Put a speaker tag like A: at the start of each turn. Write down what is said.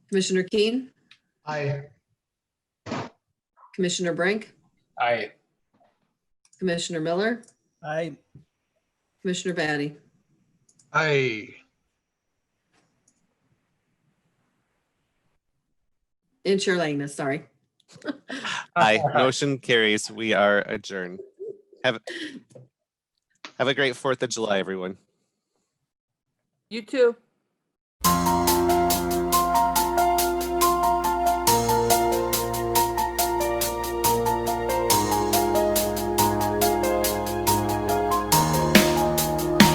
A: Commissioner Keen,
B: Aye.
A: Commissioner Brink,
B: Aye.
A: Commissioner Miller,
C: Aye.
A: Commissioner Batty.
B: Aye.
A: And Chair Langness, sorry.
D: Aye, motion carries. We are adjourned. Have, have a great Fourth of July, everyone.
E: You too.